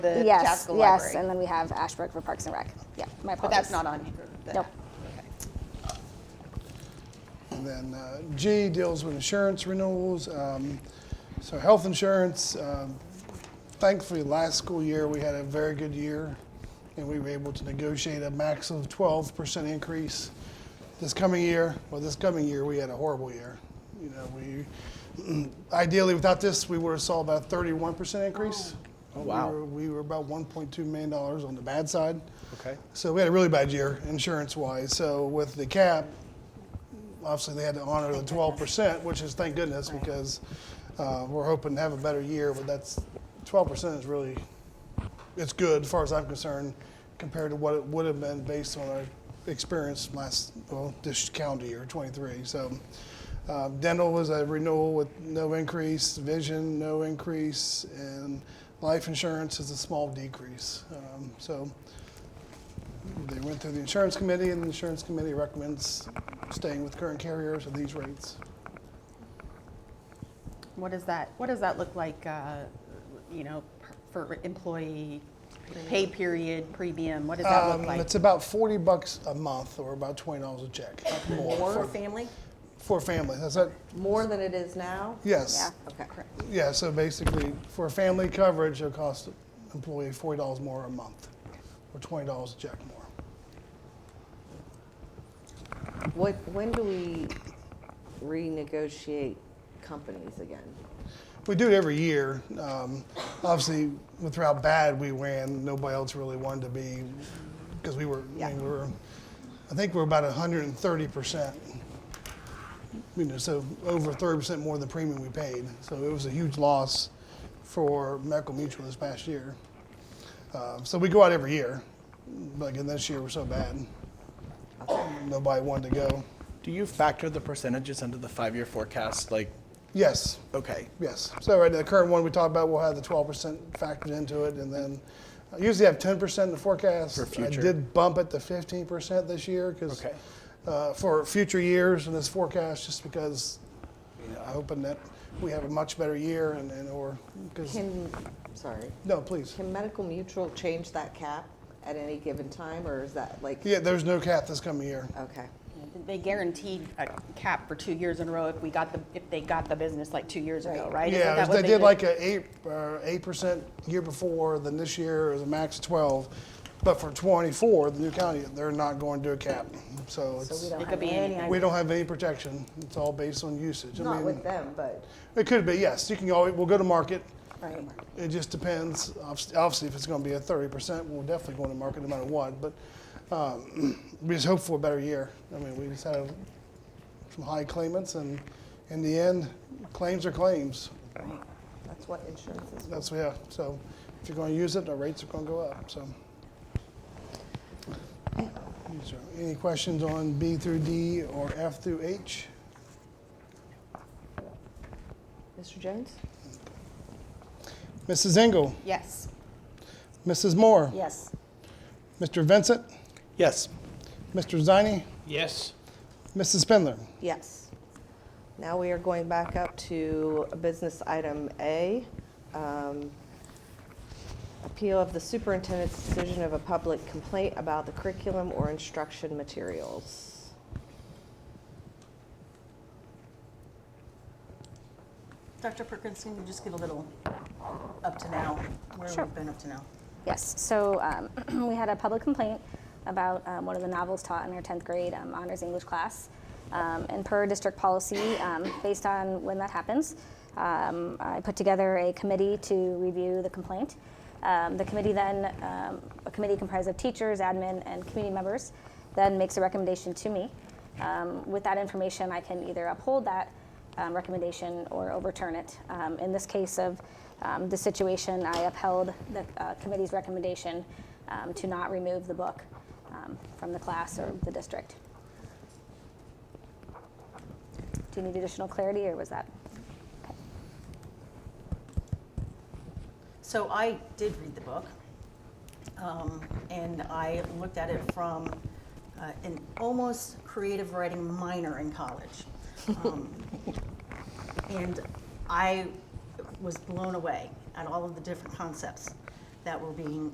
the Yes, Chaska yes, Library. and then we have Ashbrook for Parks and Rec. Yeah, my But apologies. that's not on here. the- Nope. okay. And then uh, G deals with insurance renewals. Um, So health insurance, um, thankfully, last school year, we had a very good year, and we were able to negotiate a max of 12% increase this coming year. Well, this coming year, we had a horrible year. You know, we, ideally, without this, we would have saw about 31% increase. Oh, wow. We were- We were about $1.2 million on the bad side. Okay. So we had a really bad year, insurance-wise. So with the cap, obviously they had to honor the twelve percent, which is thank goodness because uh, we're hoping to have a better year. But that's twelve percent is really it's good as far as I'm concerned compared to what it would have been based on our experience last well this calendar year 23. So. Um, dental was a renewal with no increase, vision no increase, and life insurance is a small decrease. Um, so they went through the insurance committee, and the insurance committee recommends staying with current carriers at these rates. What does that, what does that look like, uh, you know, per- for employee pay period, premium? What does that Um, look like? It's about 40 bucks a month, or about $20 a check. more More For, family? for families, that's it? More than it is now? Yes. Okay. Yeah, so basically, for family coverage, it'll cost the employee $40 more a month, or $20 a check more. What, when do we renegotiate companies again? We do it every year. Um, obviously, with how bad we ran, nobody else really wanted to be, because we were, I mean, we were, I think we're about 130 percent. You know, so over 30 percent more than the premium we paid. So it was a huge loss for Medical Mutual this past year. Uh, so we go out every year, but again, this year we're so bad, nobody wanted to go. Do you factor the percentages into the five-year forecast? Like, Yes, okay, Yes. So right, the current one we talked about, we'll have the twelve percent factored into it, and then I usually have ten percent in the forecast. For future. I did bump it to fifteen percent this year because Okay. uh, for future years in this forecast, just because you know, I'm hoping that we have a much better year and, and or because Can, sorry, no, please. can Medical Mutual change that cap at any given time, or is that like, Yeah, there's no cap this coming year. okay? They guaranteed a cap for two years in a row if we got the, if they got the business like two years ago, right? Isn't Yeah, it that was- what they did like a eight, uh, eight percent year before, then this year is a max of twelve. But for twenty-four, the new county, they're not going to do a cap, so it's. So we don't It have could be any, any, We don't have any protection. It's all based on usage. I not mean, with them, but, It could be, yes. You can always, we'll go to market. right, It just depends. Obviously, obviously if it's going to be a 30%, we'll definitely go into market no matter what. But um, we just hope for a better year. I mean, we just had some high claimants, and in the end, claims are claims. that's what insurance is. That's, yeah. So if you're going to use it, the rates are going to go up. So. These are- Any questions on B through D or F through H? Mr. Jones? Mrs. Engel? Yes. Mrs. Moore? Yes. Mr. Vincent? yes. Mr. Ziny? Yes. Mrs. Spindler? Yes. Now we are going back up to business item A. um, Appeal of the superintendent's decision of a public complaint about the curriculum or instruction materials. Dr. Perkins, can you just give a little up to now, where we've been up to now? Yes, so um, we had a public complaint about um, one of the novels taught in our 10th grade um, honors English class. Um, and per district policy, um, based on when that happens, um, I put together a committee to review the complaint. Um, the committee then, um, a committee comprised of teachers, admin, and community members, then makes a recommendation to me. Um, with that information, I can either uphold that um, recommendation or overturn it. Um, in this case of um, the situation, I upheld the uh, committee's recommendation um, to not remove the book um, from the class or the district. Do you need additional clarity, or was that? So I did read the book, um, and I looked at it from uh, an almost creative writing minor in college. Um, and I was blown away at all of the different concepts. that were being